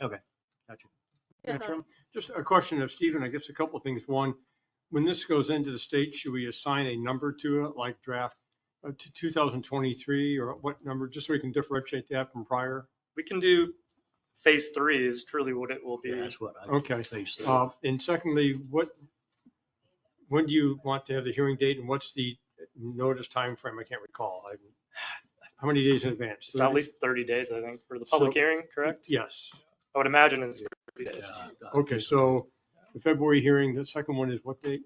Okay, gotcha. Yeah, Madam so- Chairman, Just a question of Stephen, I guess a couple of things. One, when this goes into the state, should we assign a number to it, like draft uh, to 2023 or what number, just so we can differentiate that from prior? We can do phase three is truly what it will Yeah, be. That's what I. Okay. basically- Uh, And secondly, what, when do you want to have the hearing date and what's the notice time frame? I can't recall. I- How many days in advance? It's at least thirty days, I think, for the public So- hearing, correct? Yes. I would imagine it's thirty days. Yeah, uh, Okay, so the February hearing, the second one is what date?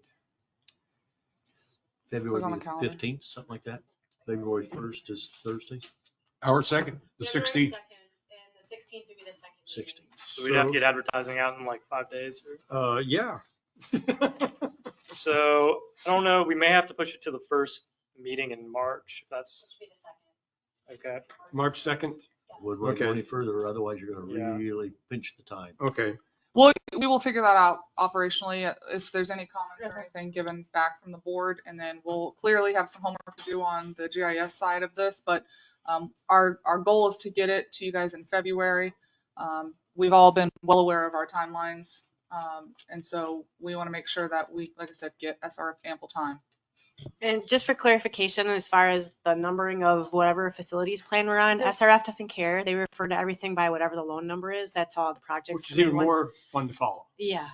Click on February the calendar. fifteenth, something like that. February first is Thursday, Our second, the February sixteenth. 2nd, And the sixteenth would be the second. meeting. sixteenth. So we'd have to get advertising out in like five days. or- Uh, yeah. So I don't know, we may have to push it to the first meeting in March. if That's Which would be the second. okay. March 2nd? Would we go Okay. any further? Otherwise, you're Yeah. gonna really pinch the time. Okay. Well, we will figure that out operationally, uh, if there's any comments or Okay. anything given back from the board, and then we'll clearly have some homework to do on the GIS side of this, but um, our, our goal is to get it to you guys in February. Um, We've all been well aware of our timelines, um, and so we want to make sure that we, like I said, get SRF ample time. And just for clarification, as far as the numbering of whatever facilities plan we're on, SRF doesn't care. They refer to everything by whatever the loan number is. That's all the projects. Which is I mean, even once- more fun to follow. Yeah,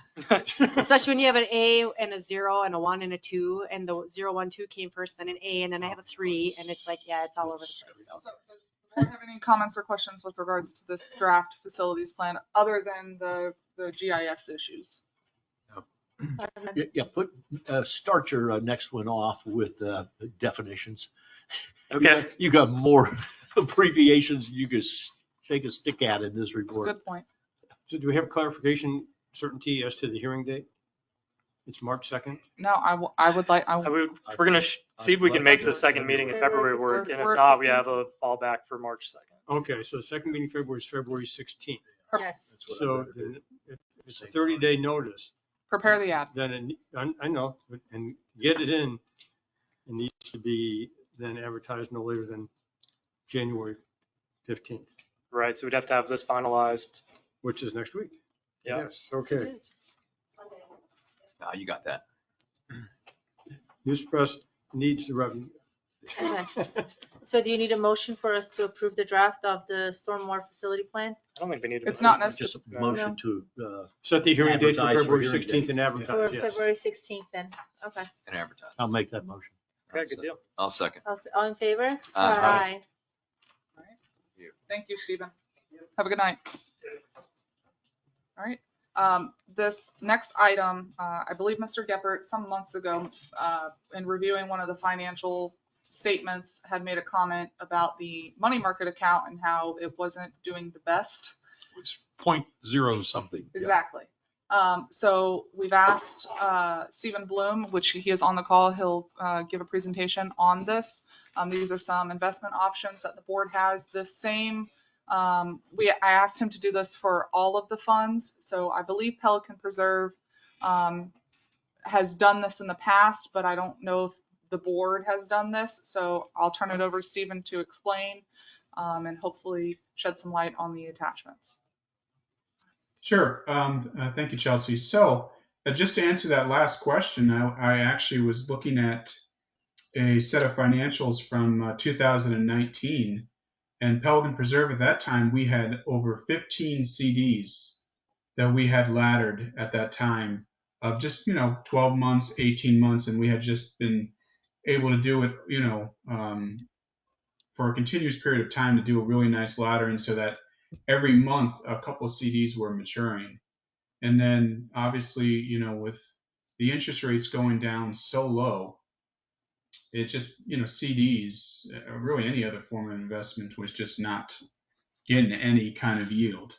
especially when you have an A and a zero and a one and a two, and the zero, one, two came first, then an A, and then I have a three, and it's like, yeah, it's all over the place. So So, does the board have any comments or questions with regards to this draft facilities plan, other than the, the GIS issues? Yeah, Yeah, put, uh, start your uh, next one off with uh, definitions. You Okay. got- You got more abbreviations you could s- shake a stick at in this That's a report. good point. So do we have clarification, certainty as to the hearing date? It's March 2nd? No, I, w- I would like, I, I w- would, we're gonna sh- see if we can make the second meeting in February work, and if not, we have a fallback for March second. Okay, so the second meeting in February is February 16th. Yes. That's what I So read. then if it's a 30-day notice, prepare the ad. then, it ne- I, I know, but- and get it in. It needs to be then advertised no later than January 15th, Right, so we'd have to have this finalized. which is next week. Yeah. Yes, okay. Sunday. Ah, you got that. News press needs the revenue. Okay. So do you need a motion for us to approve the draft of the stormwater facility plan? I don't think we need to. It's not Just a necessary. motion to, uh, Set the hearing date for Advertise for February hearing date. 16th and For advertise, yes. February 16th then, okay. And advertise. I'll make that motion. Okay, good deal. I'll second. All s- All in favor? Uh, Aye. Thank you, Stephen. Have a good night. All right, um, this next item, uh, I believe Mr. Geppert, some months ago, uh, in reviewing one of the financial statements, had made a comment about the money market account and how it wasn't doing the best. It's point zero something. Exactly. Um, so we've asked, uh, Stephen Bloom, which he is on the call, he'll, uh, give a presentation on this. Um, these are some investment options that the board has. The same, um, we, I asked him to do this for all of the funds. So I believe Pelican Preserve, um, has done this in the past, but I don't know if the board has done this. So I'll turn it over to Stephen to explain, um, and hopefully shed some light on the attachments. Sure. Um, uh, thank you, Chelsea. So, uh, just to answer that last question, I, I actually was looking at a set of financials from uh, 2019, and Pelican Preserve at that time we had over 15 CDs that we had laddered at that time of just you know 12 months, 18 months, and we had just been able to do it you know um, for a continuous period of time to do a really nice laddering so that every month a couple of CDs were maturing. And then obviously, you know, with the interest rates going down so low, it just, you know, CDs, uh, really any other form of investment was just not getting any kind of yield.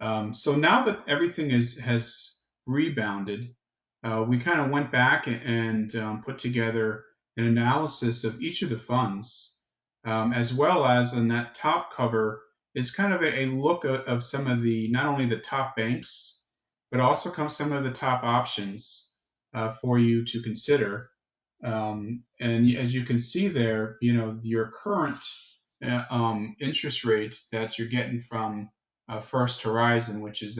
Um, so now that everything is has rebounded, uh, we kind of went back and um, put together an analysis of each of the funds, um, as well as on that top cover, is kind of a, a look of, of some of the not only the top banks, but also comes some of the top options uh, for you to consider. Um, and as you can see there, you know your current uh, um, interest rate that you're getting from uh, First Horizon, which is